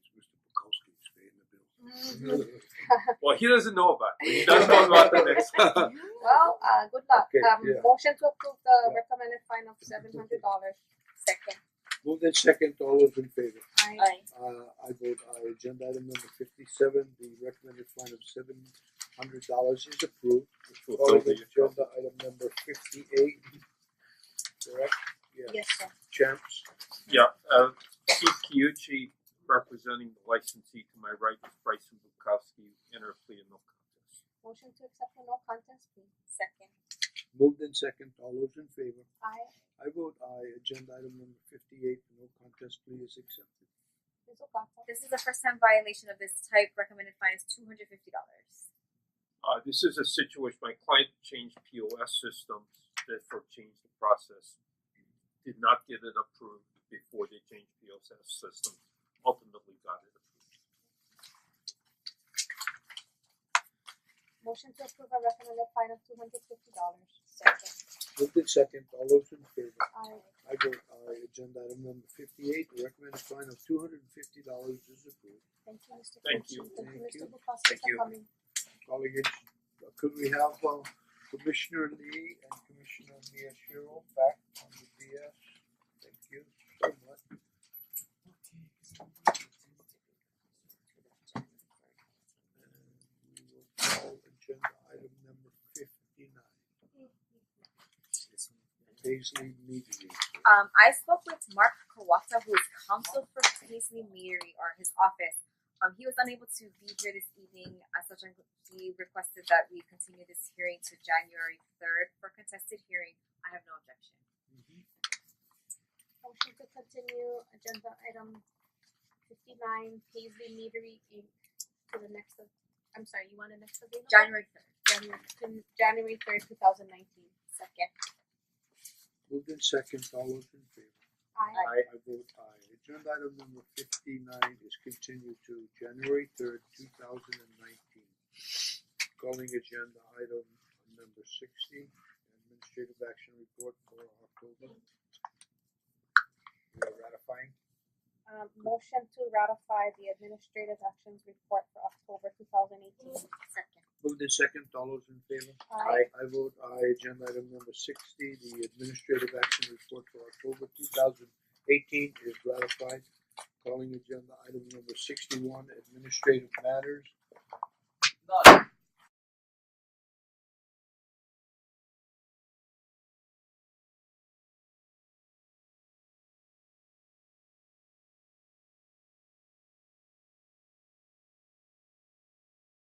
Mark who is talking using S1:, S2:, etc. S1: well, he doesn't know about it. He does know about the next.
S2: Well, uh, good luck.
S3: Okay,
S2: um,
S3: yeah.
S2: Motion to approve the
S3: Yeah.
S2: recommended fine of seven hundred dollars. Second.
S3: Moved in second, all those in favor?
S2: I
S4: Aye.
S3: Uh I vote aye, agenda item number fifty seven, the recommended fine of seven hundred dollars is approved. Calling agenda item number fifty eight. Correct? Yeah,
S4: Yes, sir.
S3: champs,
S1: Yeah, uh, Keith Kiuchi representing the licensee to my right is Bryson Bukowski, enter plea in no contest.
S2: Motion to accept the no contest plea.
S4: Second.
S3: moved in second, all those in favor?
S2: Aye.
S3: I vote aye, agenda item number fifty eight, no contest plea is accepted.
S2: Ms. Ocasio.
S4: This is the first time violation of this type. Recommended fine is two hundred fifty dollars.
S1: Uh, this is a situation, my client changed POS systems, therefore changed the process. Did not get it approved before they changed POS systems, ultimately got it approved.
S2: Motion to approve a recommended fine of two hundred fifty dollars.
S4: Second.
S3: Moved in second, all those in favor?
S2: Aye.
S3: I vote aye, agenda item number fifty eight, the recommended fine of two hundred and fifty dollars is approved.
S2: Thank you, Mr.
S1: Thank
S2: Kiuchi.
S1: you.
S2: Thank
S3: Thank
S2: you, Mr.
S3: you.
S2: Bukowski
S1: Thank you.
S2: for coming.
S3: calling it, could we have uh, Commissioner Lee and Commissioner Miyashiro back on the DS? Thank you so much. And we will call agenda item number fifty nine, Paisley Media.
S4: Um, I spoke with Mark Kawata, who is counsel for Paisley Meadery or his office. Um, he was unable to be here this evening, as such, I'm- he requested that we continue this hearing to January third for contested hearing. I have no objection.
S2: Motion to continue agenda item fifty nine, Paisley Meadery Inc. to the next of, I'm sorry, you want a next available?
S4: January third.
S2: January, to January third, two thousand nineteen.
S4: Second.
S3: Moved in second, all those in favor?
S2: Aye.
S3: I vote aye. Agenda item number fifty nine is continued to January third, two thousand and nineteen. Calling agenda item number sixty, administrative action report for October. We are ratifying,
S2: Um, motion to ratify the administrative actions report for October two thousand eighteen.
S4: Second.
S3: moved in second, all those in favor?
S2: Aye.
S3: I vote aye. Agenda item number sixty, the administrative action report for October two thousand eighteen is ratified. Calling agenda item number sixty one, administrative matters.
S5: None.